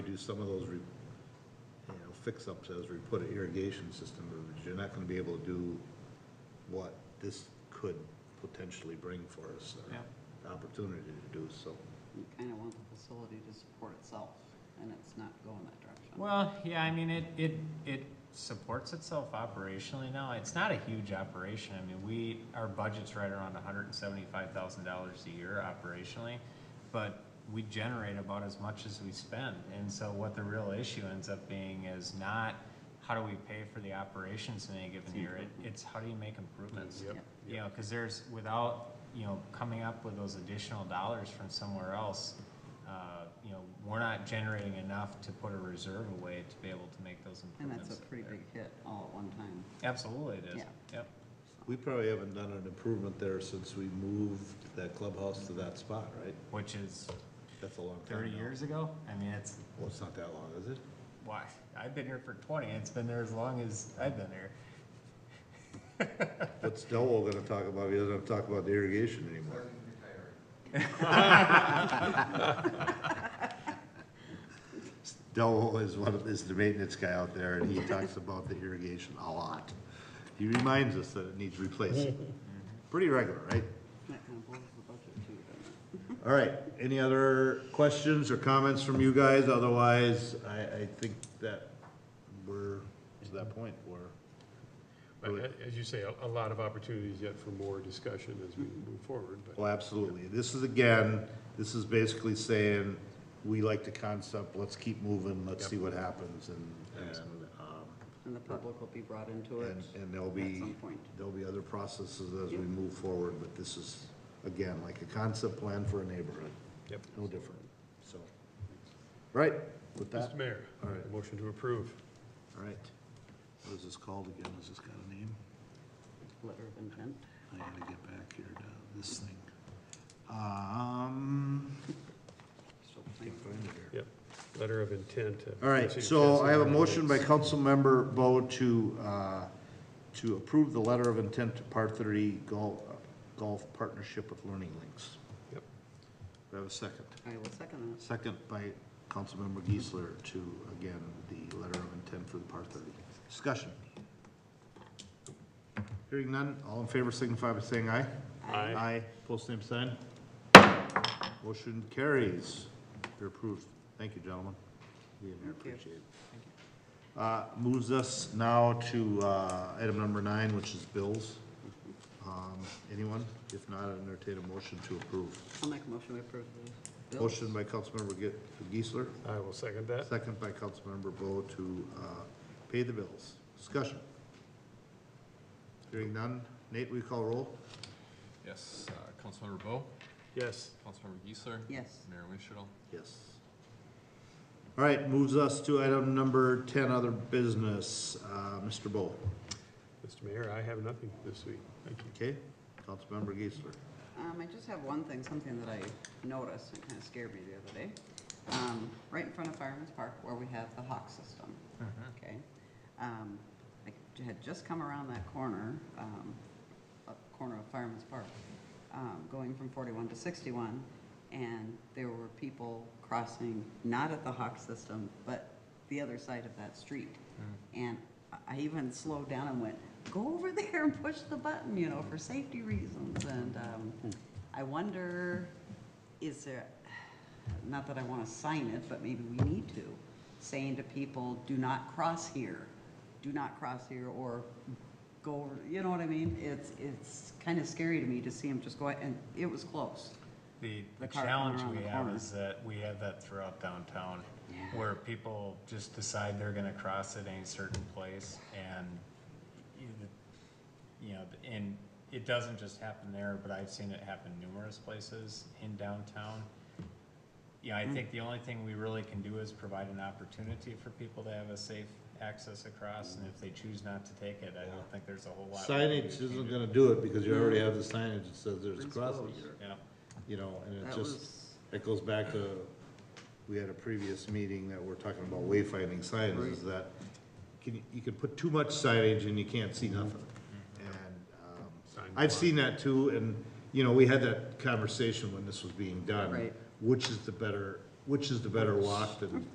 do some of those, re- you know, fix-ups as we put an irrigation system, because you're not gonna be able to do what this could potentially bring for us, or Yeah. the opportunity to do, so. You kind of want the facility to support itself, and it's not going that direction. Well, yeah, I mean, it, it, it supports itself operationally now. It's not a huge operation. I mean, we, our budget's right around hundred and seventy-five thousand dollars a year operationally. But we generate about as much as we spend. And so what the real issue ends up being is not how do we pay for the operations in any given year? It, it's how do you make improvements? Yep. You know, cause there's, without, you know, coming up with those additional dollars from somewhere else, uh, you know, we're not generating enough to put a reserve away to be able to make those And improvements. that's a pretty there. big hit all at one time. Absolutely it is, Yeah. yep. We probably haven't done an improvement there since we moved that clubhouse to that spot, right? Which is That's a long time thirty now. years ago? I mean, it's, Well, it's not that long, is it? why, I've been here for twenty, and it's been there as long as I've been here. But still, we're gonna talk about, he doesn't have to talk about the irrigation anymore. Dell is one of, is the maintenance guy out there, and he talks about the irrigation a lot. He reminds us that it needs replacing. Pretty regular, right? That kind of blows the budget too, doesn't it? All right, any other questions or comments from you guys? Otherwise, I, I think that we're, to that point, we're, But a- As you say, a- a lot of opportunities yet for more discussion as we move forward, but well, absolutely. This is again, this is basically saying, we like the concept, let's keep moving, let's see what happens, and, and, um, And the public will be brought into it. And, and there'll At be, some point. there'll be other processes as we move forward, but this is, again, like a concept plan for a neighborhood. Yep. No different, so. Right, with that, Mr. Mayor, All right. motion to approve. all right. What is this called again? Has this got a name? Letter of intent. I gotta get back here to this thing. Um, Still can't playing. find it here. Yep, letter of intent. of All right, City so Council I have a motion by ordinance. Councilmember Bo to, uh, to approve the letter of intent to par thirty golf, golf partnership with Learning Links. Yep. Do I have a second? I will second that. Second by Councilmember Geisler to, again, the letter of intent for the par thirty. Discussion. Hearing none, all in favor signify by saying aye. Aye. Aye, post same sign. Motion carries. You're approved. Thank you, gentlemen. Being here, Thank you. appreciate it. Uh, moves us now to, uh, item number nine, which is bills. Um, anyone? If not, I'd entertain a motion to approve. I'll make a motion to approve the bill. Motion by Councilmember Ge- Geisler, I will second that. second by Councilmember Bo to, uh, pay the bills. Discussion. Hearing none. Nate, will you call roll? Yes, uh, Councilmember Bo, Yes, Councilmember Geisler, Yes, Mayor Winchell. Yes. All right, moves us to item number ten, other business, uh, Mr. Bo, Mr. Mayor, I have nothing this week. Thank you. okay? Councilmember Geisler. um, I just have one thing, something that I noticed, and kind of scared me the other day. Um, right in front of Fireman's Park where we have the hawk system. Okay. Um, I j- had just come around that corner, um, up corner of Fireman's Park, um, going from forty-one to sixty-one, and there were people crossing, not at the Hawk system, but the other side of that street. And I- I even slowed down and went, go over there and push the button, you know, for safety reasons, and, um, I wonder, is there, not that I wanna sign it, but maybe we need to, saying to people, do not cross here, do not cross here, or go, over you know what I mean? It's, it's kinda scary to me to see them just go, and it was close. The, the The car coming challenge around we the have corner. is that we have that throughout downtown, where people just decide they're gonna cross at any certain place, and you- you know, and it doesn't just happen there, but I've seen it happen numerous places in downtown. Yeah, Hmm. I think the only thing we really can do is provide an opportunity for people to have a safe access across, and if they choose not to take it, I don't think there's a whole lot. we can Signage do. isn't gonna do it because you already have the signage that says there's a Principles. crossing here, Yeah, you know, and it That just, was, it goes back to, we had a previous meeting that we're talking about wayfinding signs, is that can, you- you can put too much signage and you can't see nothing. And, um, Sign I've block. seen that too, and, you know, we had that conversation when this was being done. Right. Which is the better, which is the better walk than